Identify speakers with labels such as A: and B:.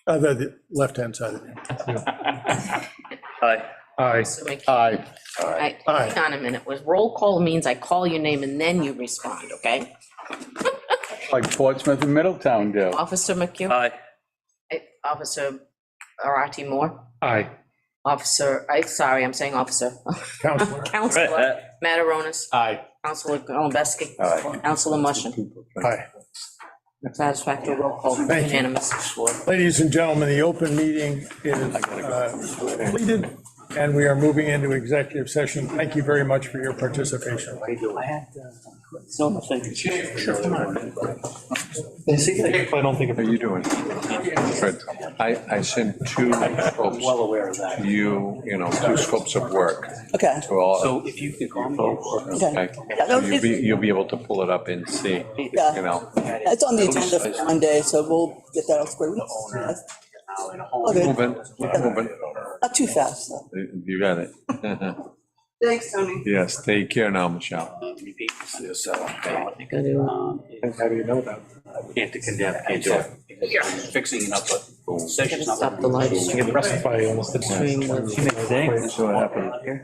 A: Uh, the, the left-hand side of you.
B: Aye.
C: Aye.
D: So I can't-
C: Aye.
D: I-
A: Aye.
D: Hang on a minute, was roll call means I call your name and then you respond, okay?
C: Like Portsmouth and Middletown do.
D: Officer McHugh,
B: Aye.
D: eh, Officer Arati Moore,
C: Aye.
D: Officer, I, sorry, I'm saying officer,
A: Counselor.
B: Right,
D: Counselor
B: uh,
D: Mataronis,
C: Aye.
D: Counselor Golembeski,
C: Aye.
D: Counselor Mushin,
A: Hi.
D: satisfactory roll call,
A: Thank you.
D: unanimous.
A: Ladies and gentlemen, the open meeting is uh, completed, and we are moving into executive session. Thank you very much for your participation.
C: I don't think. How you doing? Good.
E: I, I sent two scopes. Well aware of that. You, you know, two scopes of work
F: Okay.
E: to all,
G: So if you could call me.
F: Okay.
E: okay?
F: Yeah, no,
E: You'll be,
F: it's-
E: you'll be able to pull it up and see, you
F: Yeah.
E: know.
F: It's on the agenda for Monday, so we'll get that all squared. We- Okay,
E: Moving, moving.
F: Not too fast, though.
E: You got it.
F: Thanks, Tony.
E: Yes, take care now,
G: Um,
E: Michelle.
G: Repeat this, so.
D: Gotta do it.
G: How do you know that? um, Can't condemn, can't do it. Because Fixing it up, but.
D: Gotta stop the live stream.
C: Get arrested by almost.
D: Stream with-
G: She makes a day.
E: That's what happened.